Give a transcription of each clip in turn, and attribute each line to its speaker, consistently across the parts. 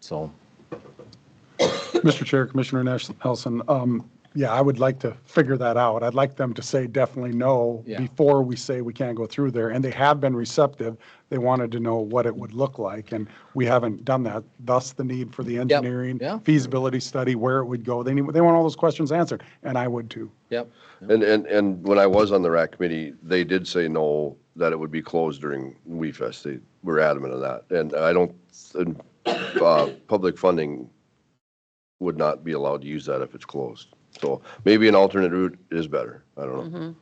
Speaker 1: So,
Speaker 2: Mr. Chair, Commissioner Nash- Nelson, um, yeah, I would like to figure that out. I'd like them to say definitely no
Speaker 1: Yeah.
Speaker 2: before we say we can't go through there. And they have been receptive. They wanted to know what it would look like, and we haven't done that. Thus the need for the engineering
Speaker 1: yeah.
Speaker 2: feasibility study, where it would go. They need, they want all those questions answered, and I would too.
Speaker 1: yep.
Speaker 3: And, and, and when I was on the RAC committee, they did say no, that it would be closed during E We Fest. They were adamant on that. And I don't, and, uh, public funding would not be allowed to use that if it's closed. So maybe an alternate route is better. I don't know.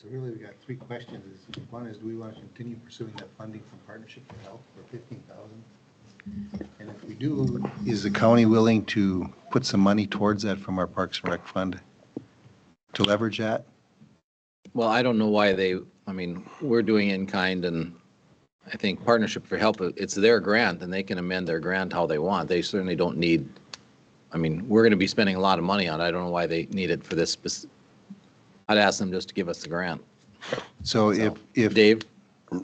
Speaker 4: So really, we got three questions. is One is, do we want to continue pursuing that funding from Partnership for Health for fifteen thousand? And if we do, is the county willing to put some money towards that from our Parks and Rec fund to leverage that?
Speaker 1: Well, I don't know why they, I mean, we're doing in kind and I think Partnership for Help, it's their grant and they can amend their grant how they want. They certainly don't need, I mean, we're going to be spending a lot of money on it. I don't know why they need it for this. spec- I'd ask them just to give us the grant.
Speaker 4: So if, if.
Speaker 1: Dave,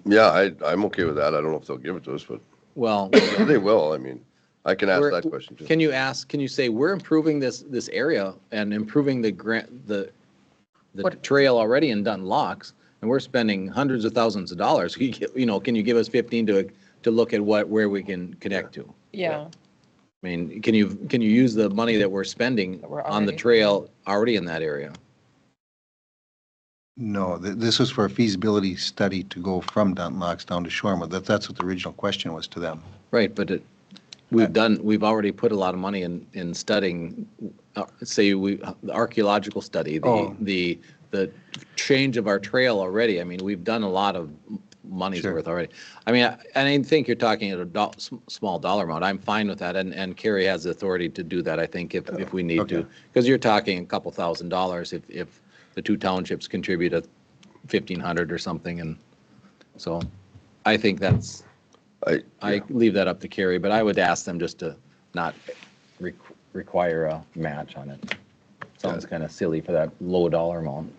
Speaker 3: Yeah, I, I'm okay with that. I don't know if they'll give it to us, but
Speaker 1: well,
Speaker 3: they will. I mean, I can ask
Speaker 1: we're-
Speaker 3: that question too.
Speaker 1: can you ask, can you say, we're improving this, this area and improving the grant, the, the
Speaker 5: What-
Speaker 1: trail already in Dunlocks and we're spending hundreds of thousands of dollars. Can You get- you know, can you give us 15 to, to look at what, where we can connect to?
Speaker 5: Yeah,
Speaker 1: I mean, can you, can you use the money that we're spending
Speaker 5: That we're
Speaker 1: on the
Speaker 5: already-
Speaker 1: trail already in that area?
Speaker 4: No, th- this was for a feasibility study to go from Dunlocks down to Shorma. That, that's what the original question was to them.
Speaker 1: Right, but it, we've done, we've already put a lot of money in, in studying, uh, say, we, the archaeological study, the,
Speaker 4: Oh.
Speaker 1: the, the change of our trail already. I mean, we've done a lot of money's
Speaker 4: Sure.
Speaker 1: worth already. I mean, I- and I think you're talking at a do- s- small dollar amount. I'm fine with that, and, and Kerry has the authority to do that, I think, if, if we need to.
Speaker 4: Okay.
Speaker 1: Because you're talking a couple thousand dollars if, if the two townships contribute a fifteen hundred or something, and so I think that's,
Speaker 3: I,
Speaker 1: I leave that up to Carrie, but I would ask them just to not re- require a match on it. Sounds kind of silly for that low dollar amount.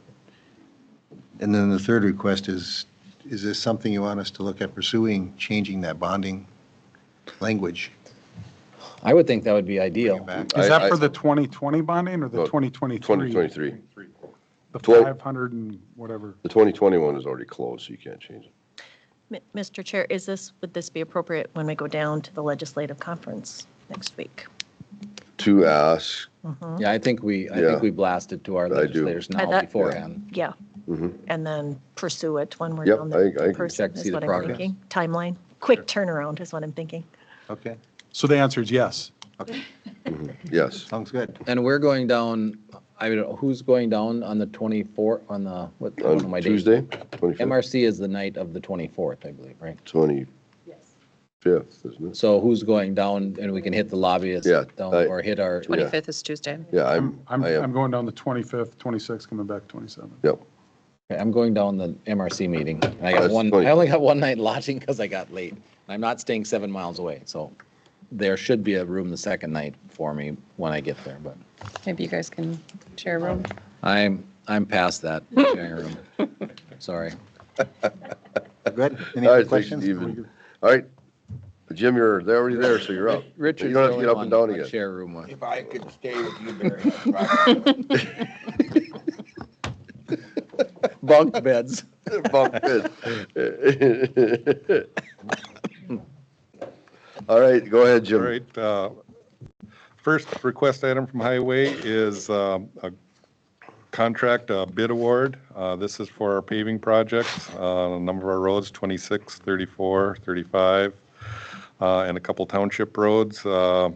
Speaker 4: And then the third request is, is this something you want us to look at pursuing, changing that bonding language?
Speaker 1: I would think that would be
Speaker 4: Bring it
Speaker 1: ideal.
Speaker 4: back.
Speaker 2: Is
Speaker 3: I-
Speaker 2: that
Speaker 3: I-
Speaker 2: for the 2020 bonding or the
Speaker 3: No,
Speaker 2: 2023?
Speaker 3: 2023.
Speaker 2: The
Speaker 3: Twen-
Speaker 2: 500 and whatever.
Speaker 3: The 2021 is already closed, so you can't change it.
Speaker 6: Mi- Mr. Chair, is this, would this be appropriate when we go down to the legislative conference next week?
Speaker 3: To ask,
Speaker 1: Yeah, I think we, I
Speaker 3: Yeah.
Speaker 1: think we blasted to our
Speaker 3: do.
Speaker 1: legislators
Speaker 6: I
Speaker 1: now
Speaker 6: thought-
Speaker 1: beforehand.
Speaker 6: Yeah,
Speaker 3: mhm.
Speaker 6: and then pursue it when we're
Speaker 3: Yep,
Speaker 6: down there.
Speaker 3: I- I can
Speaker 6: person,
Speaker 1: check, see
Speaker 6: is
Speaker 1: the
Speaker 6: what I'm
Speaker 1: progress.
Speaker 6: thinking. Timeline, quick turnaround is what I'm thinking.
Speaker 4: Okay,
Speaker 2: So the answer is yes.
Speaker 4: okay,
Speaker 3: yes.
Speaker 4: sounds good.
Speaker 1: And we're going down, I don't know, who's going down on the 24th, on the, what, what am I
Speaker 3: On
Speaker 1: dating?
Speaker 3: Tuesday, 25th,
Speaker 1: MRC is the night of the 24th, I believe, right?
Speaker 3: 25th, isn't it?
Speaker 1: So who's going down and we can hit the lobbyists
Speaker 3: Yeah,
Speaker 1: down
Speaker 3: I-
Speaker 1: or hit our,
Speaker 5: 25th is Tuesday.
Speaker 3: Yeah, I'm,
Speaker 2: I'm,
Speaker 3: I
Speaker 2: I'm
Speaker 3: am,
Speaker 2: going down the 25th, 26th, coming back 27th.
Speaker 3: yep.
Speaker 1: I'm going down the MRC meeting. and I got
Speaker 3: That's
Speaker 1: one,
Speaker 3: funny.
Speaker 1: I only got one night lodging because I got late. I'm not staying seven miles away, so there should be a room the second night for me when I get there, but
Speaker 5: Maybe you guys can share a room.
Speaker 1: I'm, I'm past that sharing room. Sorry.
Speaker 4: Good? Any
Speaker 3: All
Speaker 4: other
Speaker 3: right, thanks,
Speaker 4: questions?
Speaker 3: Steven. All right, Jim, you're, they're already there, so you're up.
Speaker 1: Richard's
Speaker 3: Oh, You
Speaker 1: the
Speaker 3: don't have to
Speaker 1: only
Speaker 3: get
Speaker 1: one I'd
Speaker 3: up and down again.
Speaker 1: Share a room with.
Speaker 7: If I could stay with you, Barry, I'd probably-
Speaker 1: Bunk beds.
Speaker 3: Bump it. All right, go ahead,
Speaker 8: All
Speaker 3: Jim.
Speaker 8: right. uh, First request item from Highway is um, a contract uh, bid award. Uh, This is for our paving projects, uh, on a number of our roads, 26, 34, 35, uh, and a couple township roads. Uh,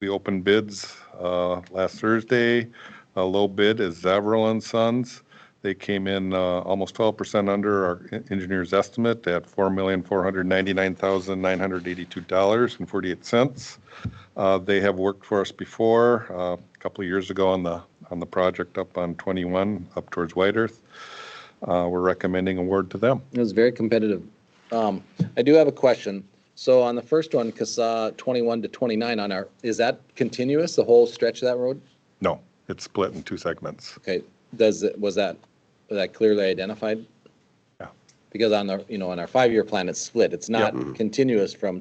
Speaker 8: We opened bids uh, last Thursday. A low bid is Zavril and Sons. They came in uh, almost 12% under our en- engineer's estimate at $4,499,982.48. Uh, They have worked for us before, uh, a couple of years ago on the, on the project up on 21, up towards White Earth. Uh, We're recommending award to them.
Speaker 1: It was very competitive. Um, I do have a question. So on the first one, CASA 21 to 29 on our, is that continuous, the whole stretch of that road?
Speaker 8: No, it's split in two segments.
Speaker 1: Okay, does, it was that, was that clearly identified?
Speaker 8: Yeah.
Speaker 1: Because on the, you know, on our five-year plan, it's split. It's not continuous from